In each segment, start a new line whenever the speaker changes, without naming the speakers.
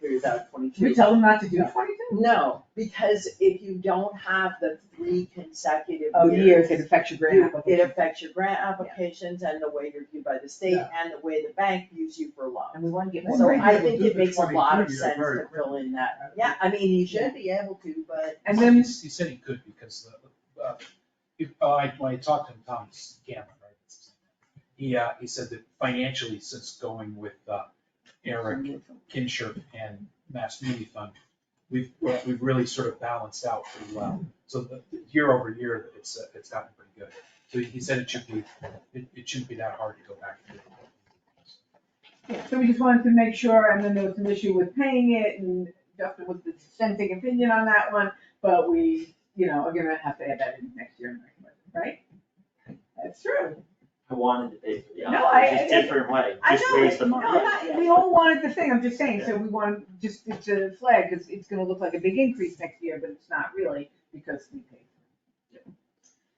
figures out twenty-two.
Should we tell them not to do twenty-two?
No, because if you don't have the three consecutive
Oh,
years.
years, it affects your grant
you- It
application.
affects your grant applications and the way you're viewed by the state and the way the bank views you for
And
loans.
we wanna get
Well,
So
we're
more.
not
I
able to
think
do
it
the
makes a lot of
22 year
sense
very
to fill in
I
that,
don't
yeah, I mean, you should be able to, but.
And then,
He said he could because the, uh, if, uh, I, when I talked to him, Tom Gamma, right? that's his name, He, uh, he said that financially, since going with, uh, Eric Kinshirk and Mass Media Fund, we've, we've really sort of balanced out pretty well. So the, year over year, it's, uh, it's gotten pretty good. So he said it should be, it, it shouldn't be that hard to go back to.
so we just wanted to make sure, and then there was an issue with paying it, and Justin was dissenting opinion on that one, but we, you know, are gonna have to add that in next year, right? That's true.
I wanted to pay for the
No,
opera,
I-
it's just
I-
different way,
I
just raise
know,
the
no,
money.
not, we all wanted the thing, I'm just saying, so we want, just to- to flag, because it's gonna look like a big increase next year, but it's not really, because we paid.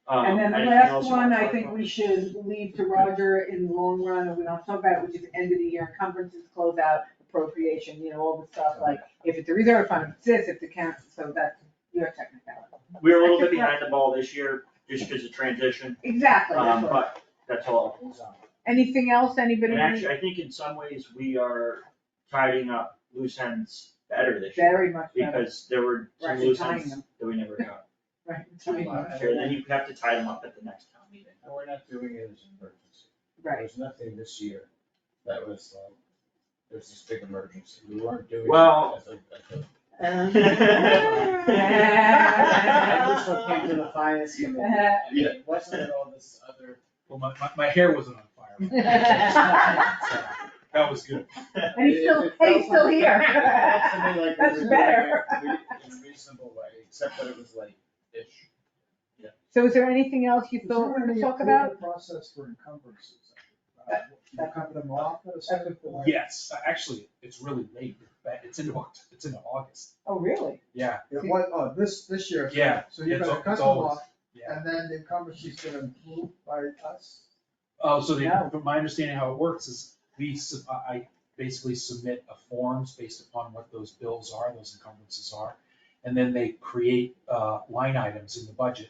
Um,
And then the
anything else
last
you wanna
one, I
talk
think
about?
we should leave to Roger in the long run, and we don't talk about it, which is end of the year encumbrances, closeout, appropriation, you know, all the stuff, like, if it's a reserve fund, if it's this, if it's accounts, so that's your technicality.
We were
I
a little bit
think-
behind the ball this year, just because of transition,
Exactly, that's
um,
what-
but that's all.
anything else, anybody?
And actually, I think in some ways, we are tidying up loose ends better this year,
Very much better,
because there were
We're
some
actually
loose
tying
ends
them.
that we never got.
right, timing,
And then you have to tie them up at the next town meeting.
And we're not doing it as an emergency.
right,
There's nothing this year that was like, there's this big emergency. We weren't doing. it
Well-
as a- as a-
Yeah.
I also came to the finance committee. and it Wasn't all this other,
Well, my, my, my hair wasn't on fire, so that was good.
And he's still, hey, he's still here.
It felt to me like we
That's
were doing
better.
it In a reasonable way, except that it was like, ish.
So is there anything else you thought we were gonna talk about?
Process for encumbrances.
Uh,
You cover them off at a second point?
Yes, actually, it's really late, but it's into, Oct- it's into August,
Oh, really?
yeah,
It was, oh, this, this year.
yeah,
So you're
It's
gonna
al-
cut
it's
them
always-
off,
yeah.
and then the encumbrances gonna improve by us.
Oh, so the,
No.
from my understanding how it works is we, sub- I I basically submit a forms based upon what those bills are, those encumbrances are. And then they create, uh, line items in the budget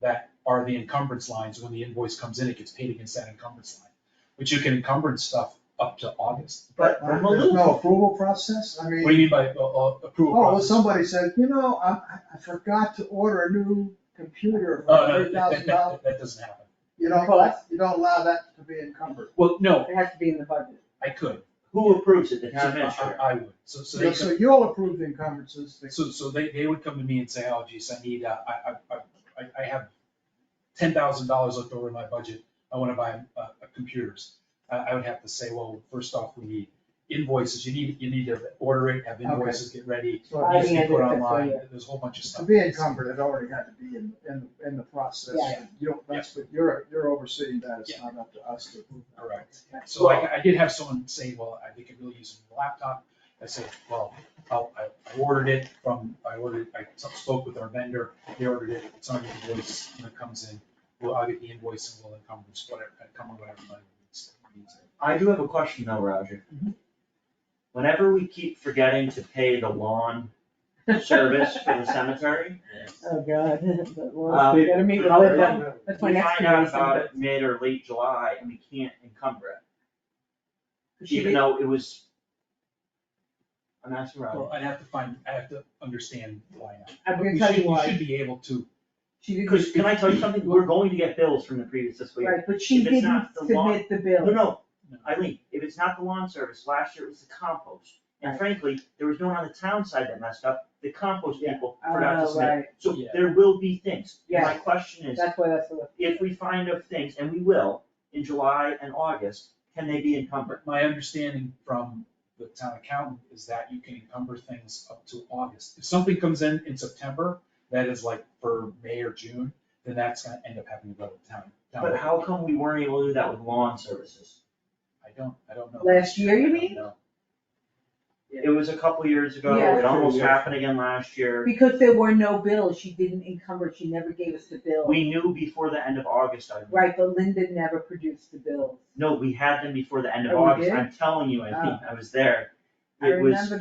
that are the encumbrance lines. When the invoice comes in, it gets paid against that encumbrance line. But you can encumbrance stuff up to August.
But
I'm a
there's
little-
no approval process, I
What do
mean,
you mean by, uh, uh, approval
oh, well,
process?
somebody said, you know, I, I- I forgot to order a new computer
Oh,
for
no,
three
that- that,
thousand dollars.
that, that doesn't happen.
You don't,
What?
you don't allow that to be encumbered.
Well, no,
It has to be in the budget.
I could.
Who approves it, the
I,
town
I-
administrator?
uh, I would. So, so they
Yeah,
could.
So you'll approve the encumbrances, the-
So, so they, they would come to me and say, oh geez, I need, uh, I, I, I, I- I have ten thousand dollars left over in my budget, I wanna buy, uh, computers. I, I would have to say, well, first off, we need invoices, you need, you need to order it, have invoices get ready,
I
so
it needs to
think
be
I did
put
that for
online,
you.
there's a whole bunch of
to
stuff.
be encumbered, it already had to be in, in, in the process.
Yeah.
You don't, that's what, you're, you're overseeing that, it's
Yeah.
not up to us to approve.
Correct. So I, I did have someone say, well, I think I really use a laptop. I said, well, I'll- I, I ordered it from, I ordered, I spoke with our vendor, they ordered it, it's on the invoice, when it comes in. Well, I'll get the invoice and we'll encumbrance whatever, encumber whatever money needs. needs it.
I do have a question though, Roger.
Mm-hmm.
Whenever we keep forgetting to pay the lawn service for the cemetery,
Oh, God. Well,
Um,
we gotta meet with Linda.
uh,
That's my
we
next
find
meeting.
out about it mid or late July and we can't encumber it, even
She-
though it was. I'm asking Roger,
Well, I'd have to find, I have to understand why. not.
I'm
We
gonna tell
should,
you
we
why.
should be able to,
She didn't,
because can I tell you something, we're going to get bills from the previous fiscal year.
right, but she
if it's
didn't
not the law-
submit the
No,
bill.
no, Eileen, if it's not the lawn service, last year it was the compost, and
Right.
frankly, there was no one on the town side that messed up, the compost
Yeah.
people forgot to
Oh,
submit.
right,
So
Yeah.
there will be things, And my
Yeah.
question is,
that's why that's the.
if we find of things, and we will, in July and August, can they be encumbered?
my understanding from the town accountant is that you can encumber things up to August. If something comes in in September, that is like for May or June, then that's gonna end up having to go to town. town.
But how come we weren't able to do that with lawn services?
I don't, I don't know.
Last year, you
I don't
mean?
know.
It was a couple years ago,
Yeah.
it almost happened again last year.
Because there were no bills, she didn't encumber, she never gave us the bill.
We knew before the end of August, I,
Right, but Linda never produced the bills.
no, we had them before the end of
Oh, we
August,
did? Oh.
I'm telling you, I think, I was there.
I
It was-
remember